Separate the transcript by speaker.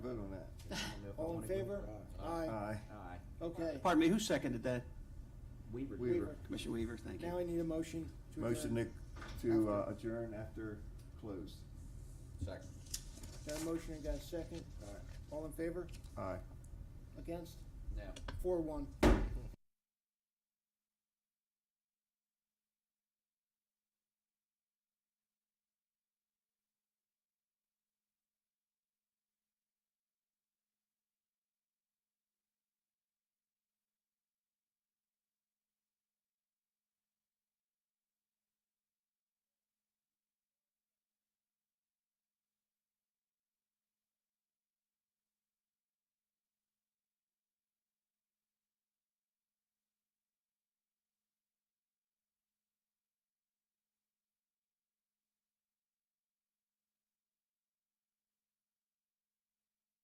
Speaker 1: vote on that? I don't know if I
Speaker 2: All in
Speaker 1: wanna go-
Speaker 2: favor? Aye.
Speaker 1: Aye.
Speaker 3: Aye.
Speaker 2: Okay.
Speaker 4: Pardon me, who seconded that?
Speaker 3: Weaver.
Speaker 1: Weaver.
Speaker 4: Commissioner Weaver, thank
Speaker 2: Now I
Speaker 4: you.
Speaker 2: need a motion to adjourn.
Speaker 1: Motion to, to uh, adjourn after closed.
Speaker 3: Second.
Speaker 2: Got a motion and got a second. All in favor?
Speaker 1: Aye.
Speaker 2: Against?
Speaker 3: No.
Speaker 2: Four one.